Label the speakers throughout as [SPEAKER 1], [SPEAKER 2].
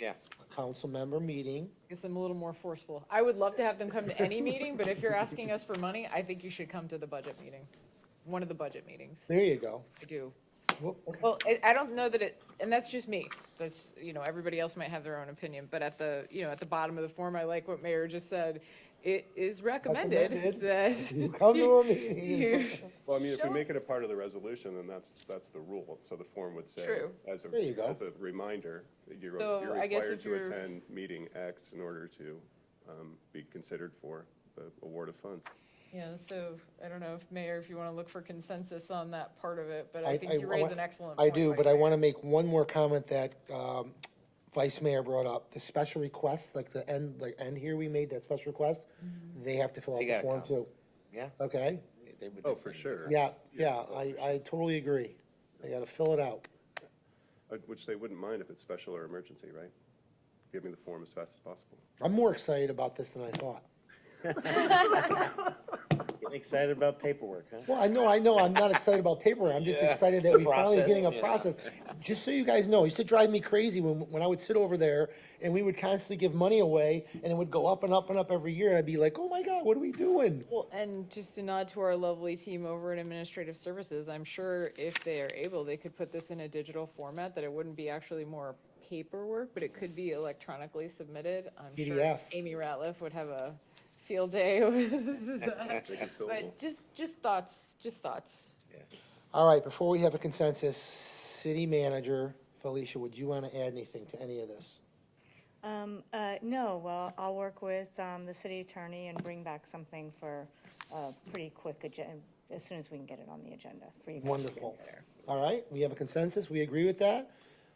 [SPEAKER 1] Yeah.
[SPEAKER 2] a council member meeting.
[SPEAKER 3] guess I'm a little more forceful. I would love to have them come to any meeting, but if you're asking us for money, I think you should come to the budget meeting, one of the budget meetings.
[SPEAKER 2] There you go.
[SPEAKER 3] I do.
[SPEAKER 2] Whoop.
[SPEAKER 3] Well, I, I don't know that it, and that's just me. That's, you know, everybody else might have their own opinion, but at the, you know, at the bottom of the form, I like what Mayor just said. It is recommended
[SPEAKER 2] Recommended.
[SPEAKER 3] that.
[SPEAKER 2] You Come to a meeting.
[SPEAKER 3] you-
[SPEAKER 4] Well, I mean, if we
[SPEAKER 3] Sure.
[SPEAKER 4] make it a part of the resolution, then that's, that's the rule. So the form would say,
[SPEAKER 3] True.
[SPEAKER 4] as
[SPEAKER 2] There you
[SPEAKER 4] a,
[SPEAKER 2] go.
[SPEAKER 4] as a reminder, that you're
[SPEAKER 3] So
[SPEAKER 4] you're
[SPEAKER 3] I guess
[SPEAKER 4] required
[SPEAKER 3] if
[SPEAKER 4] to
[SPEAKER 3] you're-
[SPEAKER 4] attend meeting X in order to um, be considered for the award of funds.
[SPEAKER 3] Yeah, so I don't know if, Mayor, if you want to look for consensus on that part of it, but
[SPEAKER 2] I-
[SPEAKER 3] I think
[SPEAKER 2] I-
[SPEAKER 3] you
[SPEAKER 2] I
[SPEAKER 3] raise
[SPEAKER 2] wa-
[SPEAKER 3] an excellent
[SPEAKER 2] I
[SPEAKER 3] point.
[SPEAKER 2] do,
[SPEAKER 3] Vice
[SPEAKER 2] but I
[SPEAKER 3] Mayor.
[SPEAKER 2] want to make one more comment that um, Vice Mayor brought up. The special request, like the end, like end here we made that special request, they have to fill out
[SPEAKER 1] They
[SPEAKER 2] the
[SPEAKER 1] gotta
[SPEAKER 2] form
[SPEAKER 1] come.
[SPEAKER 2] too.
[SPEAKER 1] Yeah.
[SPEAKER 2] Okay?
[SPEAKER 1] They- they would
[SPEAKER 4] Oh, for
[SPEAKER 1] definitely-
[SPEAKER 4] sure.
[SPEAKER 2] Yeah, yeah, I, I totally agree. They gotta fill it out.
[SPEAKER 4] Uh, Which they wouldn't mind if it's special or emergency, right? Give me the form as fast as possible.
[SPEAKER 2] I'm more excited about this than I thought.
[SPEAKER 1] Getting excited about paperwork, huh?
[SPEAKER 2] Well, I know, I know, I'm not excited about paper, I'm just
[SPEAKER 1] Yeah.
[SPEAKER 2] excited that we finally
[SPEAKER 1] Process,
[SPEAKER 2] getting a
[SPEAKER 1] yeah.
[SPEAKER 2] process. Just so you guys know, it used to drive me crazy when, when I would sit over there and we would constantly give money away and it would go up and up and up every year and I'd be like, oh my God, what are we doing?
[SPEAKER 3] Well, and just a nod to our lovely team over at Administrative Services, I'm sure if they are able, they could put this in a digital format, that it wouldn't be actually more paperwork, but it could be electronically submitted. I'm sure
[SPEAKER 2] PDF.
[SPEAKER 3] Amy Ratliff would have a field day with that.
[SPEAKER 4] Make it fillable.
[SPEAKER 3] But just, just thoughts, just thoughts.
[SPEAKER 2] All right, before we have a consensus, city manager, Felicia, would you wanna add anything to any of this?
[SPEAKER 5] Um, uh, no, well, I'll work with, um, the city attorney and bring back something for a pretty quick agenda, as soon as we can get it on the agenda for you guys to
[SPEAKER 2] Wonderful.
[SPEAKER 5] consider.
[SPEAKER 2] All right, we have a consensus, we agree with that.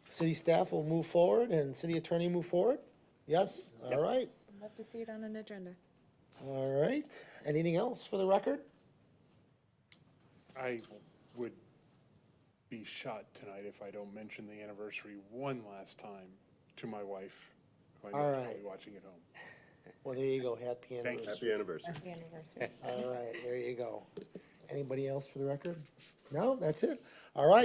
[SPEAKER 2] City staff will move forward and city attorney move forward? Yes, all right,
[SPEAKER 3] I'd love to see it on an agenda.
[SPEAKER 2] all right. Anything else for the record?
[SPEAKER 6] I would be shot tonight if I don't mention the anniversary one last time to my wife, who I know
[SPEAKER 2] All
[SPEAKER 6] is
[SPEAKER 2] right.
[SPEAKER 6] probably watching at home.
[SPEAKER 2] Well, there you go, happy
[SPEAKER 6] you.
[SPEAKER 2] anniversary.
[SPEAKER 4] Happy anniversary.
[SPEAKER 5] Happy anniversary.
[SPEAKER 2] All right, there you go. Anybody else for the record? No, that's it. All right.